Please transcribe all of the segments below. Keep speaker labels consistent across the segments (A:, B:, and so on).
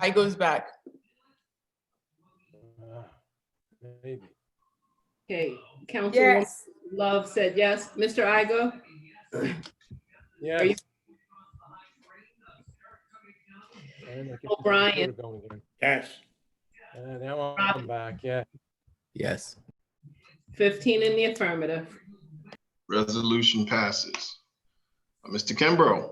A: I goes back.
B: Ah, Maybe.
C: Okay, Councilwoman
D: Yes,
C: Love said yes. Mr. Igo?
B: Yeah.
C: you- O'Brien.
E: Yes.
B: Uh, Now I'm back, yeah.
F: Yes.
C: 15 in the affirmative.
G: Resolution passes. Uh, Mr. Kimbrough,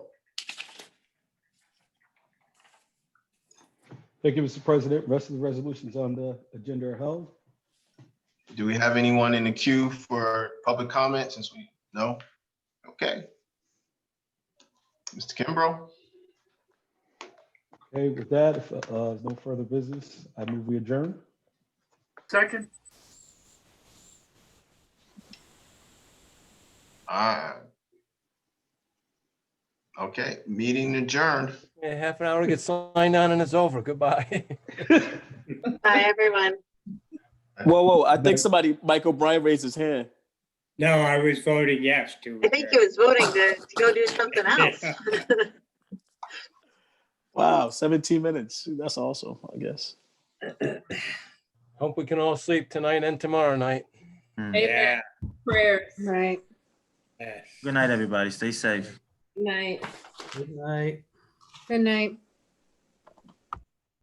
H: Thank you, Mr. President. Rest of the resolutions on the agenda are held.
G: do we have anyone in the queue for public comment since we, no? Okay. Mr. Kimbrough,
H: Okay, with that, if uh, there's no further business, I move we adjourn.
E: Second?
G: aye. Okay, meeting adjourned.
B: Yeah, Half an hour to get signed on and it's over. Goodbye.
I: Bye, everyone.
F: Whoa, whoa. I think somebody, Michael Bryan raised his hand.
E: No, I was voting yes to.
I: I think he was voting to, to go do something else.
F: Wow, 17 minutes. That's awesome, I guess.
B: Hope we can all sleep tonight and tomorrow night.
C: Amen.
E: Yeah,
C: Prayers.
D: right.
E: yes.
J: Good night, everybody. Stay safe.
C: Night.
D: Good night.